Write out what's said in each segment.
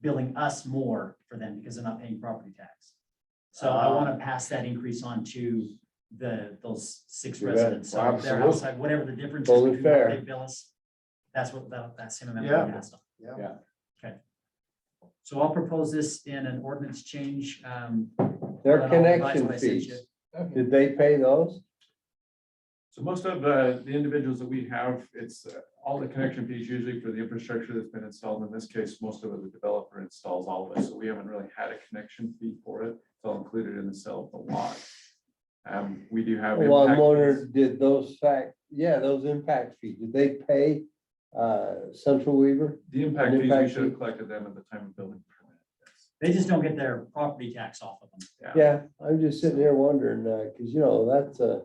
billing us more for them because they're not paying property tax. So I Uh, want to pass that increase on to the, those six Yeah, residents, so they're absolutely. outside, whatever the difference is Totally between fair. what they bill us. That's what, that, that same amount. Yeah. we passed on. Yeah. Yeah. Okay. So I'll propose this in an ordinance change, um. Their and I'll revise connection what I sent you. fees, did they pay those? So most of the, the individuals that we have, it's uh, all the connection fees usually for the infrastructure that's been installed. In this case, most of it, the developer installs all of it, so we haven't really had a connection fee for it. It's all included in the sale of the lot. Um, we do have. Well, I'm impact wondering, fees. did those fact, yeah, those impact fees, did they pay uh Central Weaver? The impact fees, we impact should have fee. collected them at the time of building permit. yes. They just don't get their property tax off of them. Yeah, I'm just sitting here wondering, uh, cause you know, that's uh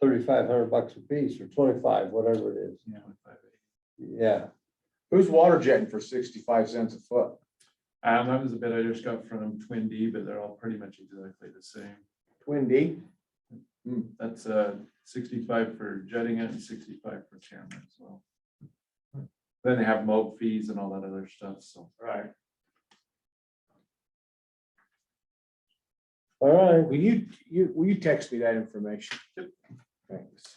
thirty-five hundred bucks a piece or twenty-five, whatever it is. Yeah. Yeah, Who's water jetting for sixty-five cents a foot? Um, that was a bit I just got from Twin D, but they're all pretty much exactly the same. Twin D? That's uh sixty-five for jetting it and sixty-five for camera as well. Then they have mob fees and all that other stuff, so. Right. all right. Will you, you, will you text me that information? Thanks.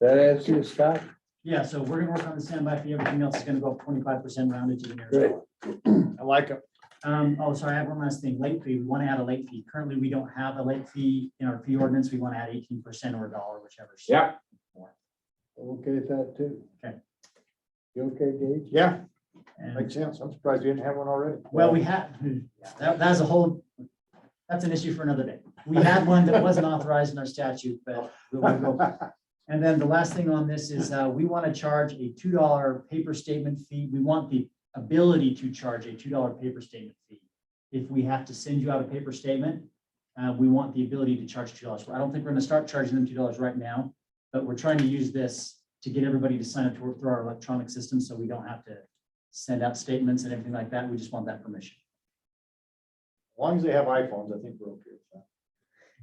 That answer you, Scott? Yeah, so we're gonna work on the standby fee, everything else is gonna go up twenty-five percent rounded to the nearest. Great. dollar. I like it. Um, oh, sorry, I have one last thing, late fee, we wanna add a late fee, currently we don't have a late fee in our fee ordinance, we wanna add eighteen percent or a dollar, whichever. Yeah. I'm Okay, with that too. Okay. You okay, Gage? Yeah, And- makes sense. I'm surprised you didn't have one already. Well, we had, hmm, that, that's a whole, that's an issue for another day. We had one that wasn't authorized in our statute, but we'll we'll go. And then the last thing on this is, uh, we want to charge a two dollar paper statement fee. We want the ability to charge a two dollar paper statement fee. If we have to send you out a paper statement, uh, we want the ability to charge two dollars. I don't think we're gonna start charging them two dollars right now, but we're trying to use this to get everybody to sign up to work through our electronic system, so we don't have to send out statements and everything like that. We just want that permission. As long as they have iPhones, I think we're okay with that.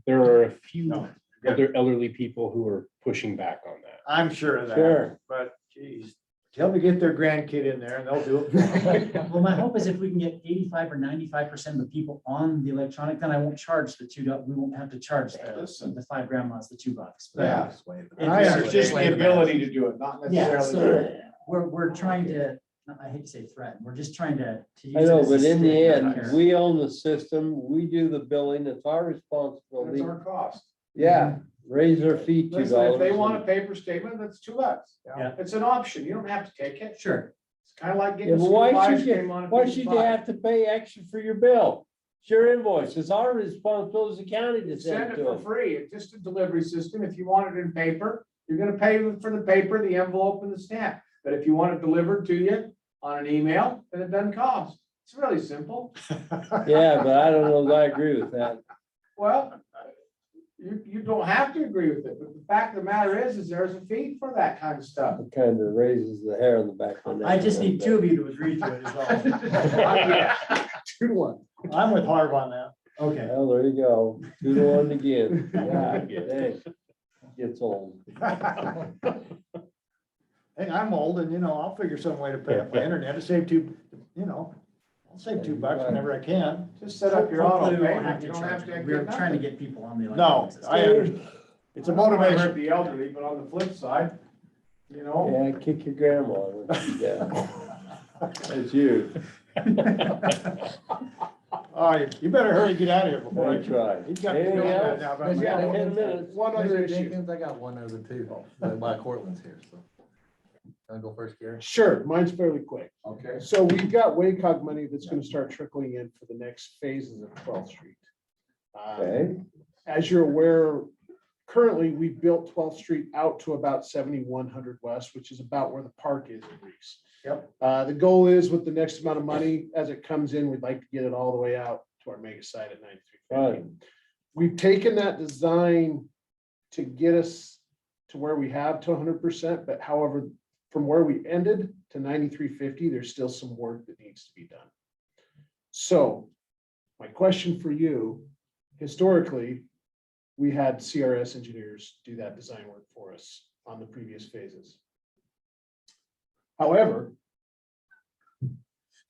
there are a few No, good. other elderly people who are pushing back on that. I'm sure of that, Sure. but geez, tell them to get their grandkid in there and they'll do it. for 'em. Well, my hope is if we can get eighty-five or ninety-five percent of the people on the electronic, then I won't charge the two, dol- we won't have to charge the, Listen. the five grandmas, the two bucks. But- Yeah. It- I it's understand just the ability to do it, not Yeah, necessarily. so we're, we're trying to, I hate to say threaten, we're just trying to. to use I it know, as a but in the stick, not end, care. we own the system, we do the billing, it's our That's responsibility. our cost. Yeah, raise their fee two Listen, dollars. if they want a paper statement, that's two bucks. you know? Yeah. It's an option. You don't have to take it. Sure, It's kind of like Yeah, getting. but school why ice should you, cream on a why piece of should you pie. have to pay extra for your bill? It's your invoice, it's our responsibility as a county to Send send it it to for them. free. It's just a delivery system. If you want it in paper, you're gonna pay for the paper, the envelope and the stamp. But if you want it delivered to you on an email, then it doesn't cost. It's really simple. Yeah, but I don't know that I agree with that. Well, you, you don't have to agree with it, but the fact of the matter is, is there's a fee for that kind of stuff. It kind of raises the hair on the back of my neck. I a just little need bit. two of you to agree to it as well. Two to one. I'm with Harv on that. Okay, Well, there you go, two to one again. God, dang. Gets old. Hey, I'm old and, you know, I'll figure some way to pay for internet to save two, you know, I'll save two bucks whenever I can. Just set up your auto hopefully we won't pay. have You to don't charge have to. them. We're trying to get people on the. No, electronic system. I, understand. it's a motivator. The elderly, but on the flip side, you know. Yeah, kick your grandma. Yeah, that's you. All right, you better hurry, get out of here before I. I tried. He's got. Anything else? He's Yeah, got I had a minute. One other Mr. issue. Jenkins, I got one other too, but my Cortland's here, so. Can I go first, Gary? Sure, mine's fairly quick. Okay. So we've got WACOG money that's gonna start trickling in for the next phases of twelfth street. Um, Okay. As you're aware, currently, we built twelfth street out to about seventy-one hundred west, which is about where the park is in Reese. Yep. Uh, the goal is with the next amount of money, as it comes in, we'd like to get it all the way out to our mega site at Right. ninety-three. We've taken that design to get us to where we have to hundred percent, but however, from where we ended to ninety-three fifty, there's still some work that needs to be done. So my question for you, historically, we had CRS engineers do that design work for us on the previous phases. However,